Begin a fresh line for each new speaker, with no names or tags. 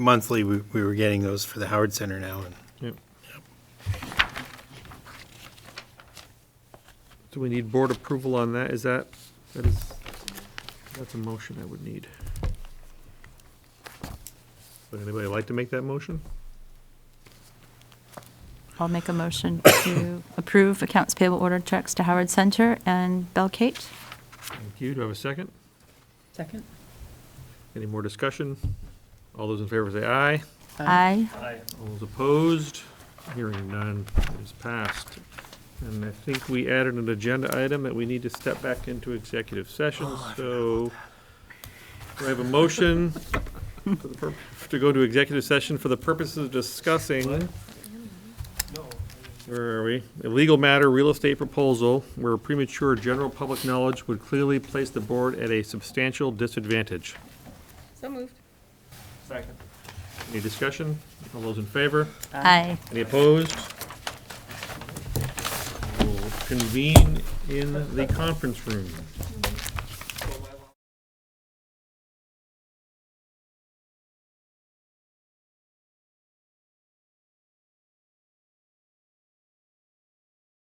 monthly, we, we were getting those for the Howard Center now, and
Do we need board approval on that? Is that, that is, that's a motion I would need. Would anybody like to make that motion?
I'll make a motion to approve accounts payable order checks to Howard Center and Belkate.
Thank you. Do I have a second?
Second?
Any more discussion? All those in favor say aye.
Aye.
All those opposed? Hearing none is passed. And I think we added an agenda item that we need to step back into executive session, so do I have a motion for the pur- to go to executive session for the purposes of discussing? Where are we? A legal matter, real estate proposal, where premature general public knowledge would clearly place the board at a substantial disadvantage.
So moved.
Second. Any discussion? All those in favor?
Aye.
Any opposed? We'll convene in the conference room.